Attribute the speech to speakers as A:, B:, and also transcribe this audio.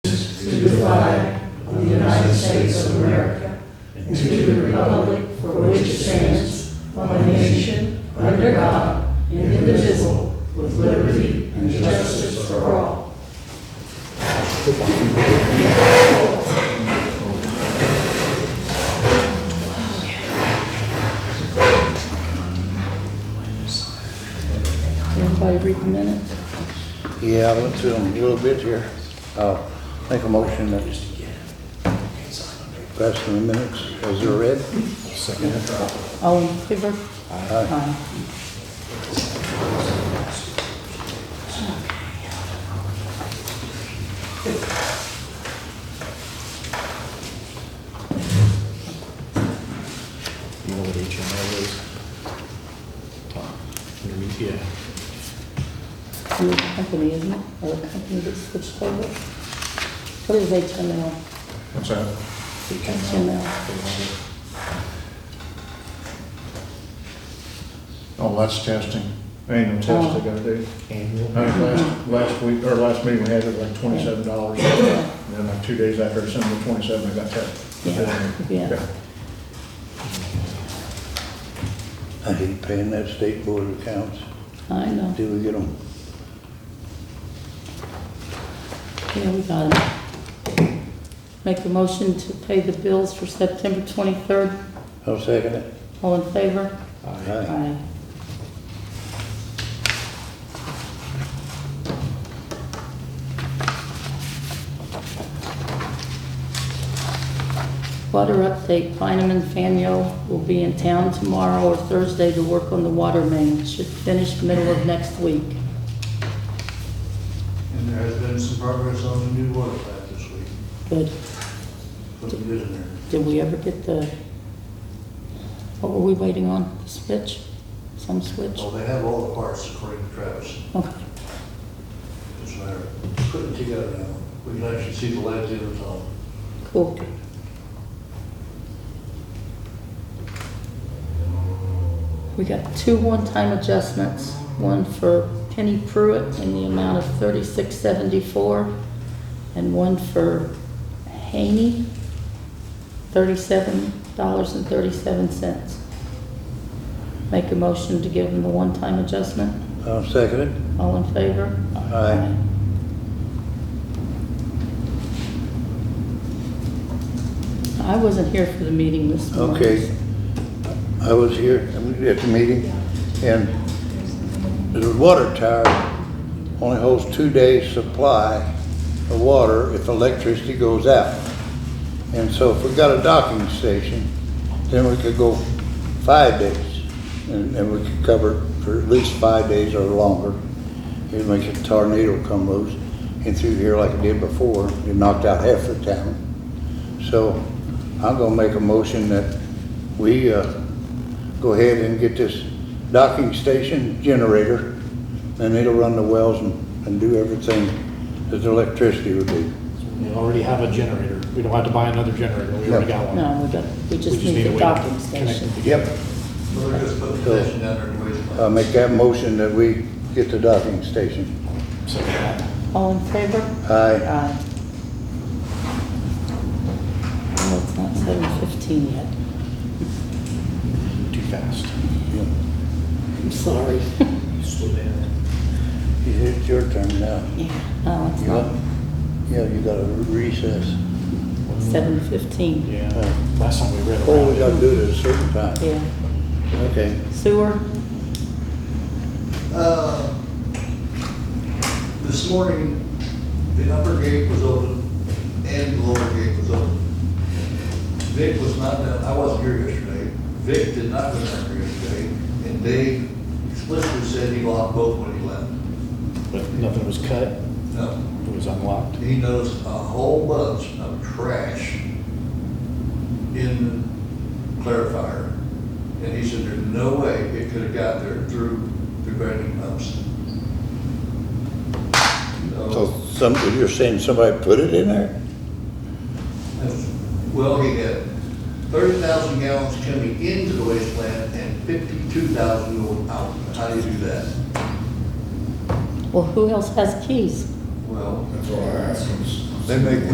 A: to the flag of the United States of America and to the republic for which it stands, one nation, under God, indivisible, with liberty and justice for all. Everybody read the minutes?
B: Yeah, I went through them a little bit here. I'll make a motion that pass the minutes as they're read.
A: All in favor?
B: Aye.
A: Aye.
C: You know what HMO is? Tom, can you read? Yeah.
A: New company, isn't it? Or the company that switched over? What is HML?
C: What's that?
A: HML.
C: Oh, that's testing, annual test they gotta do.
D: Annual.
C: Uh, Last, last week, or last meeting, we had it like twenty-seven dollars. And then like two days after, it's under twenty-seven, I got that.
A: Yeah. Yeah.
B: I hate paying that state board of accounts.
A: I know.
B: Do we get them?
A: Yeah, we got it. Make a motion to pay the bills for September 23rd.
B: I'll second it.
A: All in favor?
B: Aye.
A: Aye. Water update, Bynum and Faneuil will be in town tomorrow or Thursday to work on the water main. Should finish middle of next week.
D: And there has been some progress on the new water plant this week,
A: Good.
D: something good in there.
A: Did we ever get the, what were we waiting on? The Switch? Some switch?
D: Well, they have all the parts according to Travis,
A: Okay.
D: it's a matter of putting together now. We can actually see the light at the end of tunnel.
A: Cool. We got two one-time adjustments, one for Penny Pruitt in the amount of thirty-six seventy-four, and one for Haney, thirty-seven dollars and thirty-seven cents. Make a motion to give them the one-time adjustment.
B: I'll second it.
A: All in favor?
B: Aye.
A: I wasn't here for the meeting this morning.
B: Okay. I was here at the meeting and the water tower only holds two days' supply of water if electricity goes out. And so if we got a docking station, then we could go five days and, and we could cover for at least five days or longer. It makes a tornado come loose and through here like it did before, it knocked out half the town. So I'm gonna make a motion that we, uh, go ahead and get this docking station generator, and it'll run the wells and, and do everything that the electricity would do.
E: We already have a generator. We don't have to buy another generator. We already got one.
A: No, we got, we
E: We
A: just need the
E: a way to
A: docking
E: connect
A: station.
E: it.
B: Yep.
D: So they're just putting
B: So-
D: tension down there and waste
B: Uh,
D: plant.
B: make that motion that we get the docking station.
E: So, yeah.
A: All in favor? Uh,
B: Aye.
A: Aye. Well, it's not seven fifteen yet.
E: too fast.
A: I'm sorry.
D: Slow down.
B: It's your turn now.
A: Yeah, no, it's
B: You got-
A: not.
B: Yeah, you got a recess.
A: Seven fifteen.
E: Yeah. Last time we read
B: Oh, we
E: around.
B: gotta do it at a certain time.
A: Yeah.
B: Okay.
A: Sewer?
D: Uh, This morning, the upper gate was open and the lower gate was open. Vic was not, down- I wasn't here yesterday. Vic did not go down there yesterday, and Dave explicitly said he locked both when he left.
E: But nothing was cut. It
D: No,
E: was unlocked.
D: he noticed a whole bunch of trash in the clarifier. And he said, there's no way it could have got there through the grading pumps.
B: So
D: So,
B: some, you're saying somebody put it in there?
D: that's- well, he had thirty thousand gallons coming into the waste plant and fifty-two thousand going out. How do you do that?
A: Well, who else has keys?
D: Well,
F: That's all I ask them.
D: they make